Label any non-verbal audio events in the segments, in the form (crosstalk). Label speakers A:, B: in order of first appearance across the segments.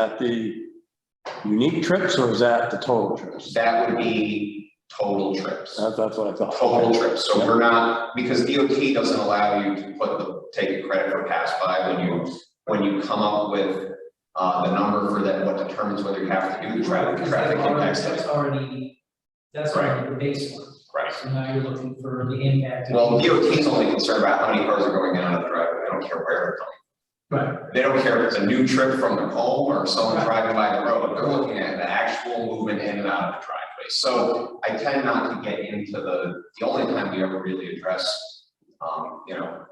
A: that the unique trips or is that the total trips?
B: That would be total trips,
A: That's, that's what I thought.
B: total trips, so we're not, because DOT doesn't allow you to put the, take a credit for pass by when you, when you come up with uh, the number for that, what determines whether you have to do the traffic,
C: Because
B: traffic
C: that's already-
B: impact study.
C: That's already, that's already the baseline.
B: Right.
C: So now you're looking for the impact. of-
B: Well, DOT is only concerned about how many cars are going in and out of the driveway, they don't care where they're coming.
C: Right,
B: They don't care if it's a new trip from the home or someone driving by the road, they're looking at the actual movement in and out of the driveway. So I tend not to get into the, the only time we ever really address, um, you know,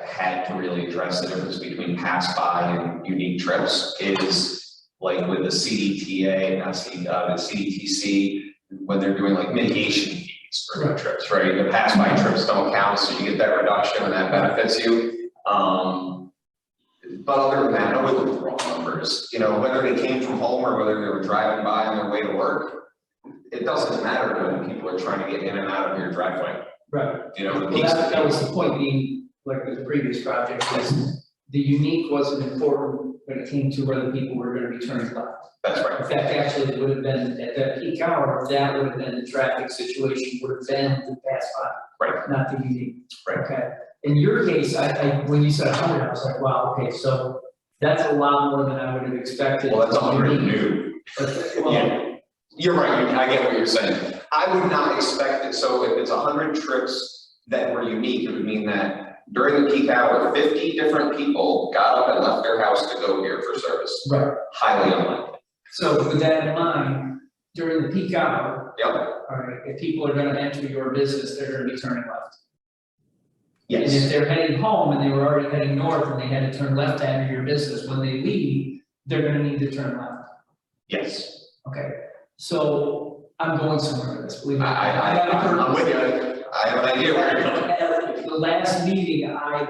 B: I've had to really address the difference between pass by and unique trips is like with the CDTA, not C, uh, the CDTC, when they're doing like mitigation fees for
C: Right.
B: trips, right? The pass by trips don't count, so you get that reduction and that benefits you. Um, but other than that, I would look at the raw numbers, you know, whether they came from home or whether they were driving by on their way to work. It doesn't matter when people are trying to get in and out of your driveway,
C: right.
B: you know, the
C: Well,
B: peaks.
C: that, that was the point being, like with the previous project, was the unique wasn't important when it came to whether people were gonna be turned left.
B: That's right,
C: In fact, actually, it would have been, at that peak hour, that would have been the traffic situation, would have been the pass by.
B: Right.
C: Not the unique.
B: Right.
C: Okay. In your case, I, I, when you said a hundred, I was like, wow, okay, so that's a lot more than I would have expected.
B: well, that's all very
C: Unique.
B: new,
C: But, well,
B: yeah. You're right, I get what you're saying, I would not expect it, so if it's hundred trips that were unique, it would mean that during the peak hour, fifty different people got up and left their house to go here for service,
C: right,
B: highly unlikely,
C: so with that in mind, during the peak hour,
B: yep,
C: all right, if people are gonna enter your business, they're gonna be turning left.
B: yes.
C: And if they're heading home and they were already heading north and they had to turn left to enter your business, when they leave, they're gonna need to turn left,
B: Yes,
C: okay? So I'm going somewhere with this, believe
B: I,
C: me.
B: I, I,
C: I've heard
B: I'm with
C: this.
B: you, I have an idea where you're coming.
C: At uh, The last meeting, I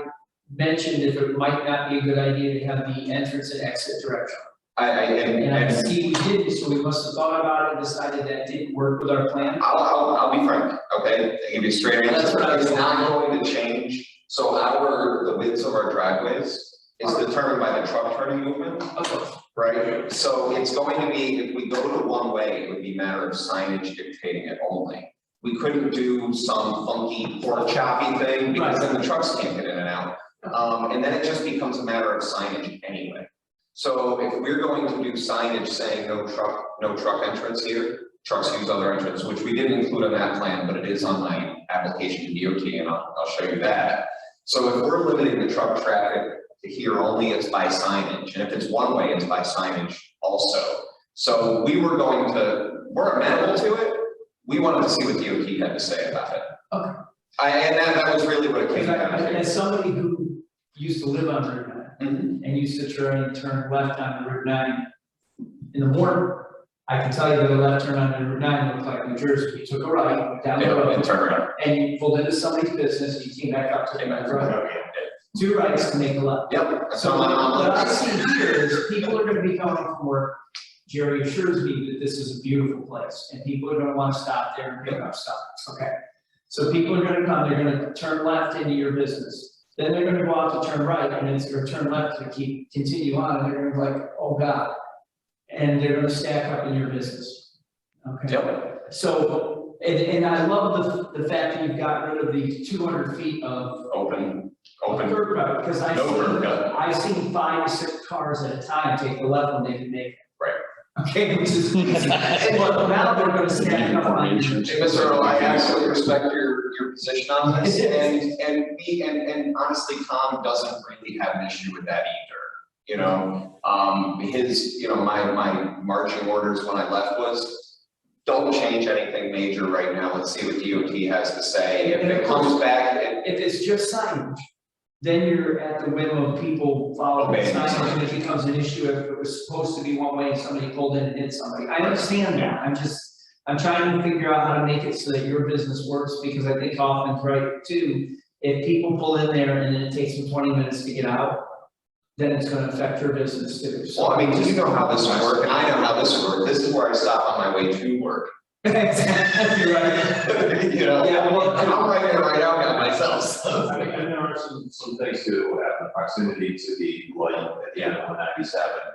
C: mentioned if it might not be a good idea to have the entrance and exit direction.
B: I, I, and,
C: And I
B: and
C: see we did, so we must have thought about it and decided that didn't work with our plan.
B: I'll, I'll, I'll be frank, okay, I give you a straight answer.
C: That's what I was-
B: It's not going to change, so our, the widths of our driveways is determined by the truck turning movement,
C: Okay.
B: right? So it's going to be, if we go to one way, it would be a matter of signage dictating it only. We couldn't do some funky pork choppy thing, because then the trucks can't get in and out. Um, and then it just becomes a matter of signage anyway. So if we're going to do signage saying no truck, no truck entrance here, trucks use other entrance, which we didn't include on that plan, but it is on my application to DOT and I'll, I'll show you that. So if we're limiting the truck traffic to here only, it's by signage, and if it's one way, it's by signage also. So we were going to, we're amenable to it, we wanted to see what DOT had to say about it.
C: Okay.
B: I, and that, that was really what it came
C: Because
B: down
C: I-
B: to.
C: As somebody who used to live on Route nine
B: Mhm.
C: and used to turn, turn left on Route nine in the morning, I can tell you that a left turn on Route nine looked like New Jersey. You took a right went down the
B: Yeah,
C: road
B: and turn around.
C: and you pulled into somebody's business and you came back up to the road. Two rights to make a left.
B: Yep, so
C: So
B: I'm, I'm
C: what I
B: looking.
C: see here is people are gonna be coming from work. Jerry assures me that this is a beautiful place and people are gonna wanna stop there and pick up stuff, okay? So people are gonna come, they're gonna turn left into your business. Then they're gonna go out to turn right and it's, or turn left to keep, continue on and they're gonna be like, oh God. And they're gonna stack up in your business, okay?
B: Yep,
C: So, and, and I love the, the fact that you've got rid of the two hundred feet of
B: open, open,
C: curb cut, because I
B: no
C: see
B: curb cut.
C: I've seen five, six cars at a time take the left when they can make it.
B: Right.
C: Okay, which is
B: (laughs)
C: easy, but now they're gonna stack up on it.
B: Hey, Mr. Earl, I absolutely respect your, your position on this, and, and me, and, and honestly, Tom doesn't really have an issue with that either. You know, um, his, you know, my, my marching orders when I left was, don't change anything major right now, let's see what DOT has to say. If it comes back, and
C: If it's just signage, then you're at the whim of people following
B: Obeying
C: signage,
B: signage.
C: and it becomes an issue if it was supposed to be one way and somebody pulled in and hit somebody. I understand that, I'm just, I'm trying to figure out how to make it so that your business works, because I think often, right, too, if people pull in there and then it takes them twenty minutes to get out, then it's gonna affect your business too, so.
B: Well, I mean, you know how this would work, and I know how this would work, this is where I stop on my way to work.
C: (laughs)
B: (laughs)
C: Exactly right.
B: You know,
C: Yeah, well-
B: and I'm right there, right out now myself, so.
D: I think, and there are some, some things too, that will have the proximity to the light at the end of one ninety-seven.